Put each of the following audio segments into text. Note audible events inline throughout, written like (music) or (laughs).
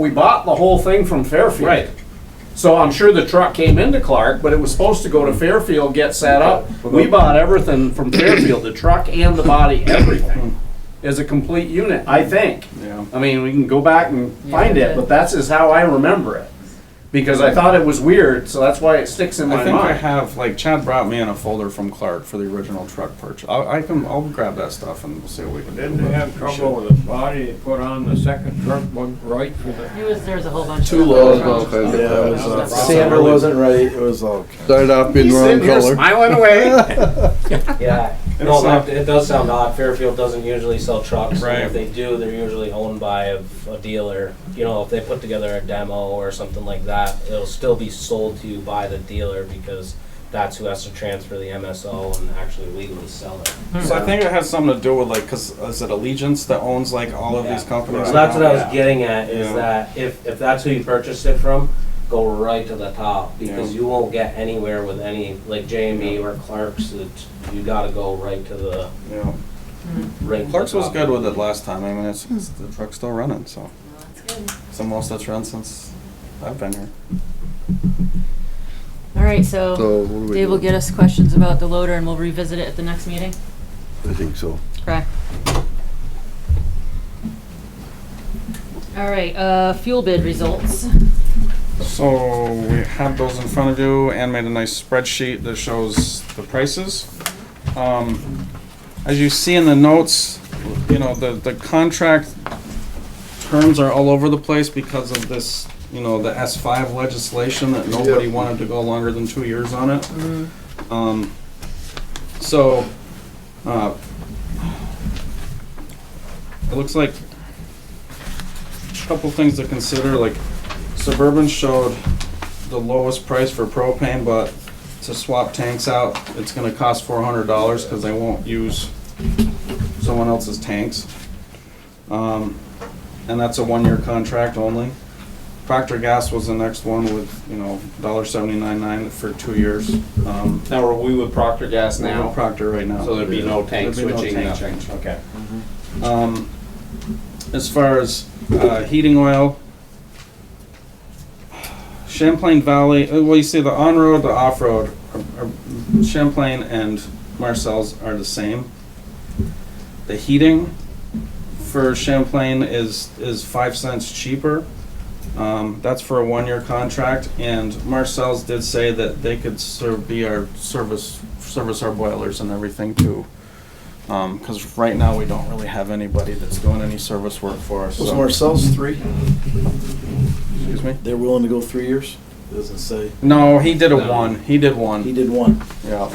we bought the whole thing from Fairfield. Right. So I'm sure the truck came into Clark, but it was supposed to go to Fairfield, get set up. We bought everything from Fairfield, the truck and the body, everything, as a complete unit, I think. Yeah. I mean, we can go back and find it, but that's is how I remember it. Because I thought it was weird, so that's why it sticks in I my think I mind. have, like Chad brought me in a folder from Clark for the original truck purchase. I, I can, I'll grab that stuff and we'll see what we can do. Didn't they have trouble with the body they put on the second truck, wasn't right for the, It was, there's a whole bunch of. Two other lows, problems. okay. Yeah, it was, uh, That's- sander wasn't right, it was all. Started off being He's wrong sitting here color. smiling away. (laughs) Yeah, no, that- it does sound odd. Fairfield doesn't usually sell trucks. and Right. If they do, they're usually owned by a a dealer. You know, if they put together a demo or something like that, it'll still be sold to you by the dealer because that's who has to transfer the MSO and actually legally sell it. So I think it has something to do with like, cause is it Allegiance that owns like all of these Yeah. companies? So that's what I now? was getting at, is Yeah. that if, if that's who you purchased it from, go right to the top, because Yeah. you won't get anywhere with any, like JME or Clark's, that you gotta go right to the, Yeah. right to the Clark's was top. good with it last time. I mean, it's, it's- the truck's still running, so. That's good. It's the most that's run since I've been here. All right, So so what do we Dave will do? get us questions about the loader and we'll revisit it at the next meeting. I think so. Correct. All right, uh, fuel bid results. So we have those in front of you and made a nice spreadsheet that shows the prices. Um, As you see in the notes, you know, the, the contract terms are all over the place because of this, you know, the S five legislation that nobody Yep. wanted to go longer than two years on it. Um, So, uh, it looks like a couple things to consider, like Suburban showed the lowest price for propane, but to swap tanks out, it's gonna cost four hundred dollars, cause they won't use someone else's tanks. Um, and that's a one-year contract only. Procter Gas was the next one with, you know, dollar seventy-nine-nine for two years. Um, Now, are we with Procter Gas we're with now? Procter right now. So there'd be no tank There'd be no switching, tank nothing. change. Okay. Um, as far as uh, heating oil, Champlain Valley, uh, well, you see the on road, the off road, Champlain and Marcel's are the same. The heating for Champlain is, is five cents cheaper. Um, that's for a one year contract, and Marcel's did say that they could serve, be our service, service our boilers and everything too. Um 'cause cause right now we don't really have anybody that's doing any service work for us, Was so- Marcel's three? excuse me? They're willing to go three years? Doesn't say. No, he did a one, he did one. He did one. Yeah.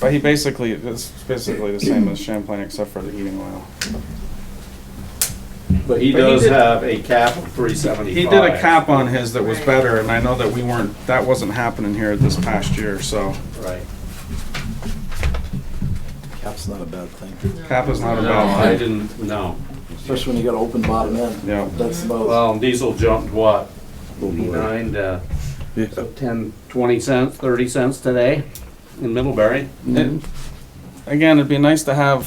But he basically, it's basically the same as Champlain except for the heating oil. But he But he does did- have a cap of three seventy-five. He did a cap on his that was better, and I know that we weren't, that wasn't happening here this past year, so Right. Cap's not a bad thing, cap is not a No, I bad thing. didn't, no. especially when you got an open bottom end. Yeah. That's about, Well, diesel jumped what, Oh, boy. nine to Yeah. so ten, twenty cents, thirty cents today in Middlebury. It- Again, it'd be nice to have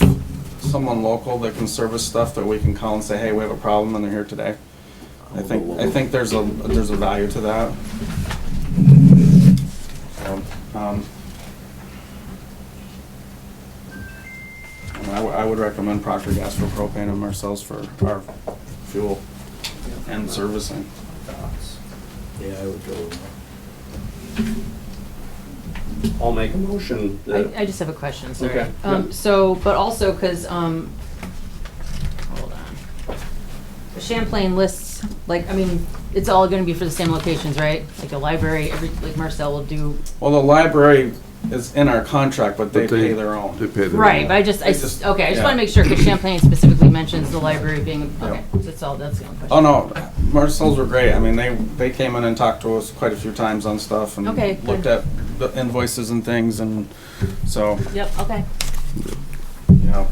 someone local that can service stuff that we can call and say, hey, we have a problem, and they're here today. I think, I think there's a, there's a value to that. So, um, I mean, I would, I would recommend Procter Gas for propane and Marcel's for our fuel and servicing. yeah, I would go. with one. I'll make a motion I, that I just have a question, sorry. Okay. Um, so, but also, cause, um, hold on. Champlain lists, like, I mean, it's all gonna be for the same locations, right? Like the library, every, like Marcel will do, Well, the library is in our contract, but they But they- pay their own. They paid it. right, but I just, I, It's s- just- okay, I just yeah. wanna make sure, cause Champlain specifically mentions the library being, okay, that's all, that's the only question. Oh no, Marcel's were great. I mean, they they came in and talked to us quite a few times on stuff and Okay, good. looked at the invoices and things, and so Yep, okay. you know,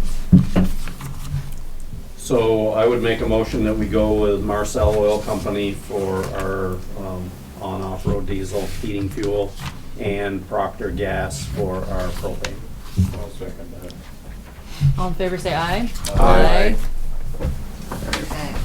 So I would make a motion that we go with Marcel Oil Company for our um, on-off-road diesel heating fuel and Procter Gas for our propane. I'll second that. All in favor, say aye. Aye. Okay.